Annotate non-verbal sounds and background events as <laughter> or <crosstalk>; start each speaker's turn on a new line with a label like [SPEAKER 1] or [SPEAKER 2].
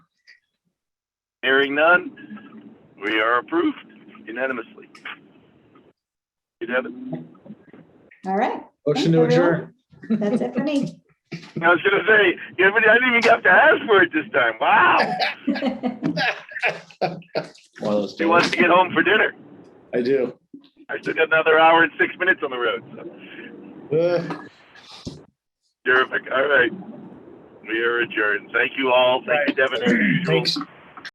[SPEAKER 1] Hearing none, we are approved unanimously. You, Devin?
[SPEAKER 2] All right,
[SPEAKER 3] Motion to
[SPEAKER 2] Thanks, everyone.
[SPEAKER 3] adjourn.
[SPEAKER 2] that's it for me.
[SPEAKER 1] I was gonna say, yeah, but I didn't even have to ask for it this time. Wow.
[SPEAKER 3] <laughs>
[SPEAKER 2] <laughs>
[SPEAKER 3] One of those
[SPEAKER 1] He wants
[SPEAKER 3] days.
[SPEAKER 1] to get home for dinner.
[SPEAKER 3] I do.
[SPEAKER 1] I still got another hour and six minutes on the road. So.
[SPEAKER 3] Uh,
[SPEAKER 1] Terrific. All right. We are adjourned. Thank you all. Thank you, Devin. as usual.
[SPEAKER 3] Thanks,